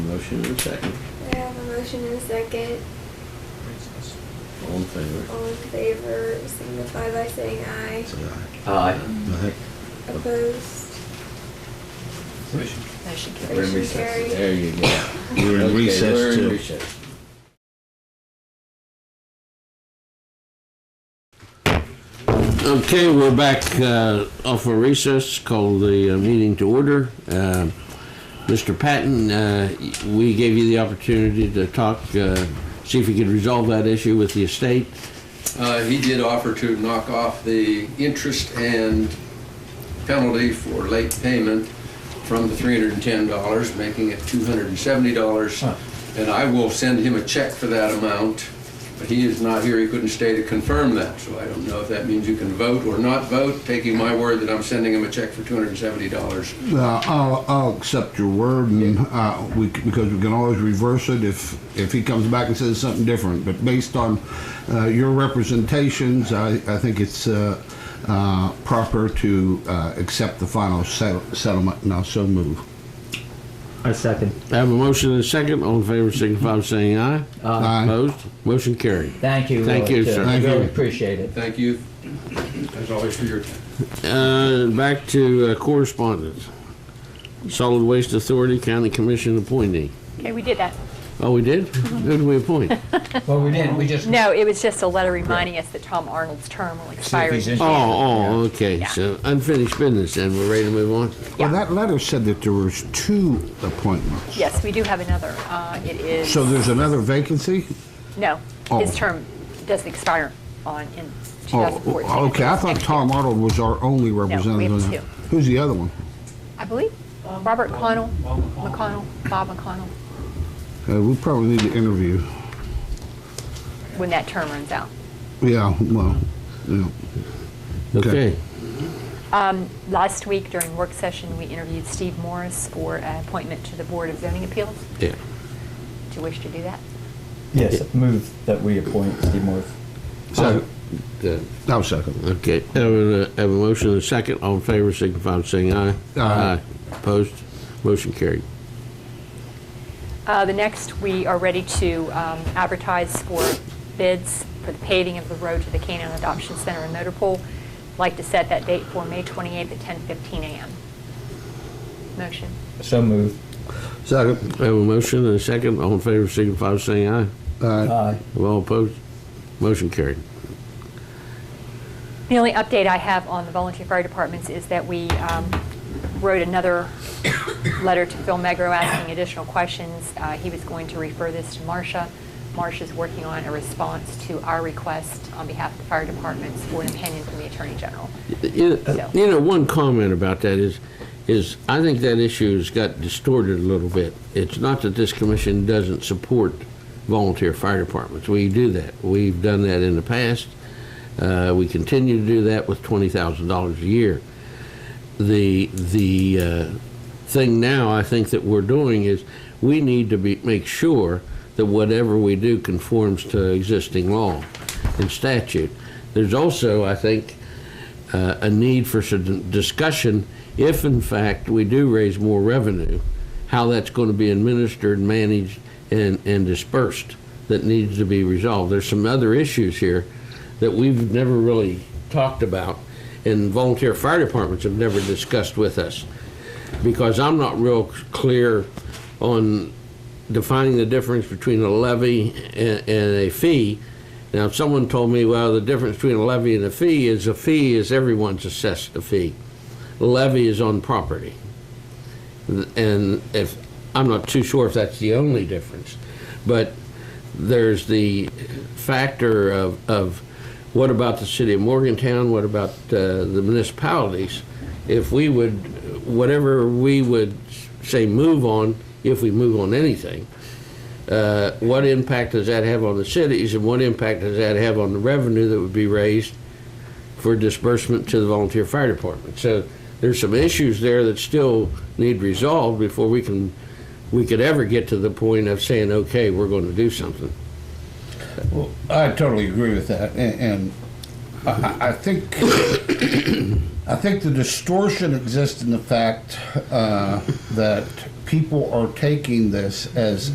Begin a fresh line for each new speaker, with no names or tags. motion and a second.
I have a motion and a second.
All in favor?
All in favor, signify by saying aye.
Say aye.
Aye.
Aye.
Opposed?
Motion carries.
We're in
Motion
recess.
carried.
There you go.
We're in
Okay,
recess
we're in
till-
recess.
Okay, we're back uh, off a recess, call the uh, meeting to order. Uh, Mr. Patton, uh, we gave you the opportunity to talk, uh, see if you could resolve that issue with the estate.
Uh, He did offer to knock off the interest and penalty for late payment from the $310, making it $270. And I will send him a check for that amount, but he is not here, he couldn't stay to confirm that. So I don't know if that means you can vote or not vote, taking my word that I'm sending him a check for $270.
Uh, I'll, I'll accept your word, and uh, we c- because we can always reverse it if if he comes back and says something different. But based on uh, your representations, I, I think it's uh, uh, proper to uh, accept the final settle, settlement, and I'll so move.
I second.
I have a motion and a second. All in favor, signify by saying aye.
Aye.
Opposed? Motion carried.
Thank you.
Thank
Roy,
you,
too.
sir.
Thank
Really
you.
appreciate it.
Thank you, as always, for your time.
Uh, back to uh, correspondence. Solid Waste Authority County Commission appointee.
Okay, we did that.
Oh, we did? Who did we appoint?
Well, we didn't, we just.
No, it was just a letter reminding us that Tom Arnold's term will expire.
he's interested.
Oh, oh, okay,
Yeah.
so unfinished business, and we're ready to move on?
Well, that letter said that there was two appointments.
Yes, we do have another. Uh, It is,
So there's another vacancy.
no, his
Oh.
term doesn't expire on, in
Oh,
2014.
okay. I thought Tom Arnold was our only representative.
have
on that.
two.
Who's the other one?
I believe, Robert Connell, McConnell, Bob McConnell,
Uh, we probably need to interview.
when that term runs out.
Yeah. Well. Yeah.
Okay.
Okay.
Um, Last week during work session, we interviewed Steve Morris for an appointment to the Board of Zoning Appeals.
Yeah.
Do you wish to do that?
Yes, move that we appoint Steve Morris.
So,
Yeah.
I'll second.
Okay, have a, have a motion and a second, all in favor, signify by saying aye.
Aye.
Opposed, motion carried.
Uh, The next, we are ready to um, advertise for bids for the paving of the road to the Canaan Adoption Center in Motor Pool. Like to set that date for May 28th at 10:15 a.m. Motion.
So move.
Second.
Have a motion and a second, all in favor, signify by saying aye.
Uh,
Aye.
All opposed, motion carried.
The only update I have on the volunteer fire departments is that we um, wrote another letter to Phil Megro asking additional questions. Uh, He was going to refer this to Marcia. Marcia's working on a response to our request on behalf of the fire departments for an opinion from the Attorney General.
You know,
So-
you know, one comment about that is, is I think that issue has got distorted a little bit. It's not that this commission doesn't support volunteer fire departments. We do that. We've done that in the past. Uh, we continue to do that with twenty thousand dollars a year. The the uh, thing now I think that we're doing is we need to be make sure that whatever we do conforms to existing law and statute. There's also I think uh, a need for some discussion if, in fact, we do raise more revenue, how that's going to be administered, managed, and, and dispersed that needs to be resolved. There's some other issues here that we've never really talked about, and volunteer fire departments have never discussed with us because I'm not real clear on defining the difference between a levy and, and a fee. Now, someone told me, well, the difference between a levy and a fee is a fee is everyone's assessed a fee. Levy is on property. And if, I'm not too sure if that's the only difference, but there's the factor of, of what about the city of Morgantown? What about uh, the municipalities? If we would, whatever we would say move on, if we move on anything, uh, what impact does that have on the cities and what impact does that have on the revenue that would be raised for disbursement to the volunteer fire department? So there's some issues there that still need resolved before we can, we could ever get to the point of saying, okay, we're going to do something.
I totally agree with that, and, and I, I- I think I think the distortion exists in the fact uh, that people are taking this as